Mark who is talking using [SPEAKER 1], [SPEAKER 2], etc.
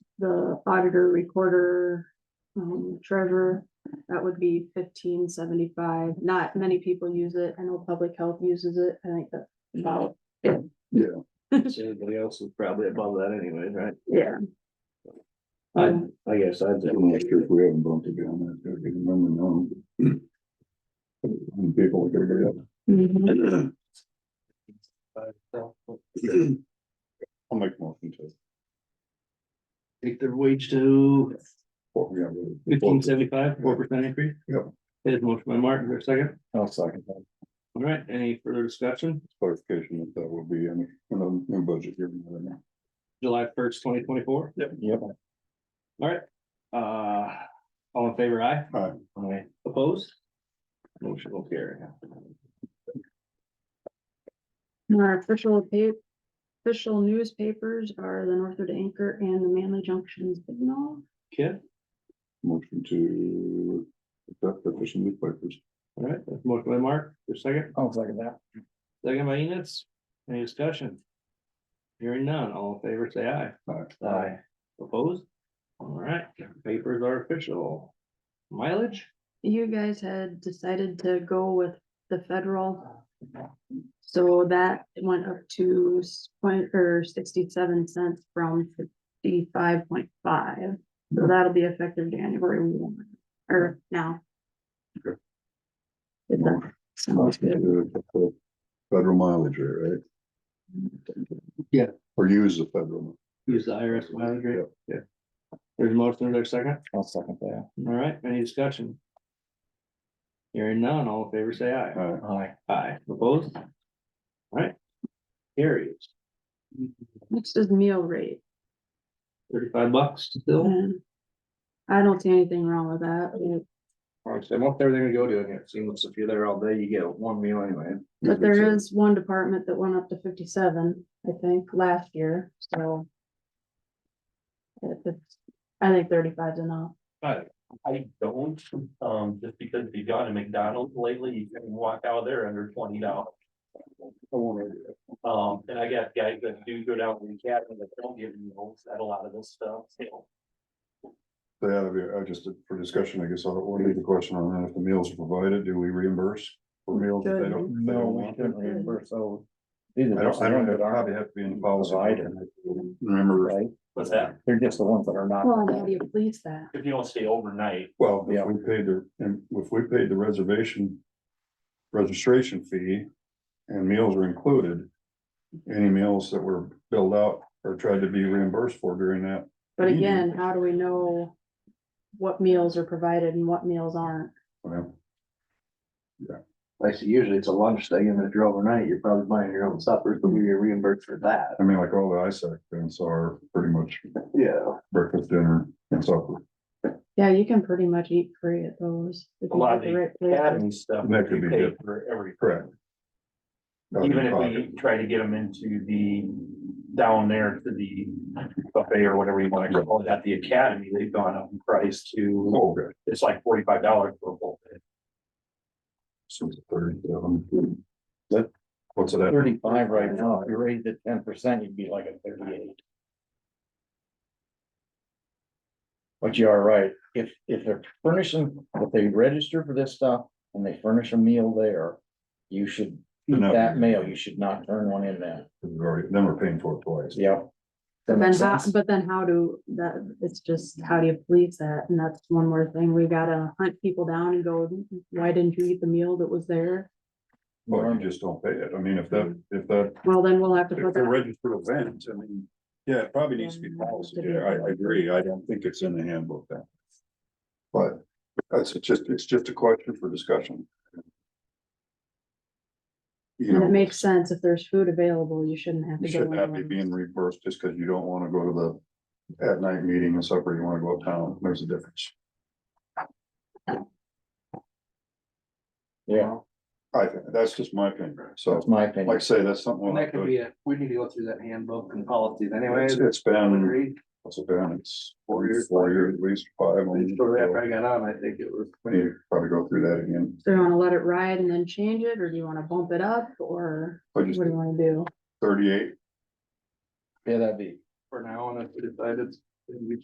[SPEAKER 1] the auditor, recorder, um, treasurer, that would be fifteen seventy-five. Not many people use it. I know public health uses it. I think that's about,
[SPEAKER 2] Everybody else is probably above that anyway, right?
[SPEAKER 1] yeah. Um,
[SPEAKER 2] I, I guess I'd.
[SPEAKER 3] I'm not sure if we haven't bumped it down, I don't remember now. And People like everybody else.
[SPEAKER 1] mhm.
[SPEAKER 3] I'll make a motion to.
[SPEAKER 2] Take their wage to
[SPEAKER 3] what we got rid of.
[SPEAKER 2] fifteen seventy-five, four percent increase?
[SPEAKER 3] Yep.
[SPEAKER 2] There's motion by Martin, for a second.
[SPEAKER 3] I'll second that.
[SPEAKER 2] All right, any further discussion?
[SPEAKER 3] Clarification that that will be in, in a new budget here.
[SPEAKER 2] July first, twenty twenty-four,
[SPEAKER 3] Yep. Yep.
[SPEAKER 2] uh, all in favor, aye?
[SPEAKER 3] Aye.
[SPEAKER 2] Aye. Opposed? Motion will carry.
[SPEAKER 1] Our official pa- official newspapers are the Northwood Anchor and the Manly Junction Signal.
[SPEAKER 2] Kid,
[SPEAKER 3] Motion to. accept the fishing league papers.
[SPEAKER 2] all right, that's motion by Mark, for a second,
[SPEAKER 3] I'll second that.
[SPEAKER 2] second by Enos, any discussion? Hearing none, all in favor, say aye. Aye. Opposed? All right, papers are official. Mileage?
[SPEAKER 1] You guys had decided to go with the federal. So that went up to s- point or sixty-seven cents from fifty-five point five. So that'll be effective January one, or now.
[SPEAKER 3] Okay.
[SPEAKER 1] If that sounds good.
[SPEAKER 3] Federal mileage, rate, right?
[SPEAKER 2] Yeah.
[SPEAKER 3] Or use the federal.
[SPEAKER 2] Use the IRS mileage rate.
[SPEAKER 3] Yep.
[SPEAKER 2] There's a motion, there's a second.
[SPEAKER 3] I'll second that.
[SPEAKER 2] All right, any discussion? Hearing none, all in favor, say aye.
[SPEAKER 3] Aye.
[SPEAKER 2] Aye. Aye, opposed? All right. Carries
[SPEAKER 1] Next is meal rate.
[SPEAKER 2] thirty-five bucks still.
[SPEAKER 1] and I don't see anything wrong with that. It-
[SPEAKER 2] Honestly, most everything we go to, again, it seems if you're there all day, you get one meal anyway.
[SPEAKER 1] But there is one department that went up to fifty-seven, I think, last year, so. It, it's, I think thirty-five is enough.
[SPEAKER 4] I, I don't, um, just because if you gone to McDonald's lately, you can walk out of there under twenty dollars.
[SPEAKER 3] I won't argue.
[SPEAKER 4] Um, and I got guys that do go down to the academy that don't give meals at a lot of this stuff, so.
[SPEAKER 3] They ought to be, I just, for discussion, I guess, I'll order the question on that, if the meals are provided, do we reimburse? For meals that they don't, they
[SPEAKER 5] No,
[SPEAKER 3] don't
[SPEAKER 5] we
[SPEAKER 2] uh,
[SPEAKER 3] want?
[SPEAKER 5] shouldn't reimburse those. These
[SPEAKER 3] I
[SPEAKER 5] are just
[SPEAKER 3] don't,
[SPEAKER 5] the
[SPEAKER 3] I don't,
[SPEAKER 5] ones
[SPEAKER 3] it
[SPEAKER 5] that aren't,
[SPEAKER 3] probably have to be in the policy.
[SPEAKER 5] Provided.
[SPEAKER 3] Remember,
[SPEAKER 5] right?
[SPEAKER 4] What's that?
[SPEAKER 5] They're just the ones that are not.
[SPEAKER 1] Well, how do you please that?
[SPEAKER 4] If you don't stay overnight,
[SPEAKER 3] well,
[SPEAKER 5] Yeah.
[SPEAKER 3] if we paid the, and if we paid the reservation, registration fee and meals are included. Any meals that were billed out or tried to be reimbursed for during that,
[SPEAKER 1] But
[SPEAKER 3] Mhm.
[SPEAKER 1] again, how do we know what meals are provided and what meals aren't?
[SPEAKER 3] well,
[SPEAKER 6] I see usually it's a lunch thing, and if you're overnight, you're probably buying your own supper, but we get reimbursed for that.
[SPEAKER 3] I mean, like all the ISAC events are pretty much
[SPEAKER 6] Yeah.
[SPEAKER 3] breakfast, dinner and supper.
[SPEAKER 1] Yeah, you can pretty much eat free at those. if
[SPEAKER 4] a
[SPEAKER 1] you
[SPEAKER 4] lot
[SPEAKER 1] have
[SPEAKER 4] of
[SPEAKER 1] the
[SPEAKER 4] the
[SPEAKER 1] right places.
[SPEAKER 4] academy stuff.
[SPEAKER 3] That could be
[SPEAKER 4] we pay
[SPEAKER 3] good.
[SPEAKER 4] For every,
[SPEAKER 3] Correct.
[SPEAKER 4] even if we try to get them into the, down there to the buffet or whatever you wanna call it, at the academy, they've gone up in price to,
[SPEAKER 3] Oh, good.
[SPEAKER 4] it's like forty-five dollars for a full day.
[SPEAKER 3] Since thirty-seven. That, what's it at?
[SPEAKER 5] Thirty-five right now, if you raised it ten percent, you'd be like a thirty-eight. But you are right, if, if they're furnishing, if they register for this stuff and they furnish a meal there, you should, eat
[SPEAKER 3] No.
[SPEAKER 5] that meal, you should not turn one in there.
[SPEAKER 3] We've already, then we're paying for it twice.
[SPEAKER 5] Yep. That
[SPEAKER 1] But then
[SPEAKER 5] makes
[SPEAKER 1] how,
[SPEAKER 5] sense.
[SPEAKER 1] but then how do, that, it's just, how do you police that? And that's one more thing, we gotta hunt people down and go, why didn't you eat the meal that was there?
[SPEAKER 3] Well, you just don't pay it. I mean, if that, if that,
[SPEAKER 1] Well, then we'll have to
[SPEAKER 3] if
[SPEAKER 1] put
[SPEAKER 3] they're
[SPEAKER 1] that,
[SPEAKER 3] registered event, I mean, yeah, it probably needs Um, to be policy. Yeah, I, I agree. I don't think it's in the handbook then. But that's it's just, it's just a question for discussion. You
[SPEAKER 1] and it
[SPEAKER 3] know,
[SPEAKER 1] makes sense, if there's food available, you shouldn't have
[SPEAKER 3] you
[SPEAKER 1] to
[SPEAKER 3] shouldn't have to be
[SPEAKER 1] go.
[SPEAKER 3] being reimbursed just because you don't want to go to the at night meeting and supper. You want to go uptown. There's a difference,
[SPEAKER 5] Yeah,
[SPEAKER 3] I think. That's just my opinion. So.
[SPEAKER 5] that's my
[SPEAKER 3] Like I
[SPEAKER 5] opinion.
[SPEAKER 3] say, that's something. we'll
[SPEAKER 6] And that
[SPEAKER 3] have
[SPEAKER 6] could
[SPEAKER 3] to-
[SPEAKER 6] be a, we need to go through that handbook and policies anyway.
[SPEAKER 3] It's it's been,
[SPEAKER 6] Agreed.
[SPEAKER 3] what's it been, it's four
[SPEAKER 6] Four
[SPEAKER 3] years,
[SPEAKER 6] years.
[SPEAKER 3] four years, at least five. almost.
[SPEAKER 6] Shortly after I got on, I think it was.
[SPEAKER 3] We need to probably go through that again.
[SPEAKER 1] So you wanna let it ride and then change it, or do you wanna bump it up, or
[SPEAKER 3] I
[SPEAKER 1] what
[SPEAKER 3] just,
[SPEAKER 1] do you wanna do?
[SPEAKER 3] thirty-eight
[SPEAKER 5] Yeah, that'd be.
[SPEAKER 6] For now, and I decided, we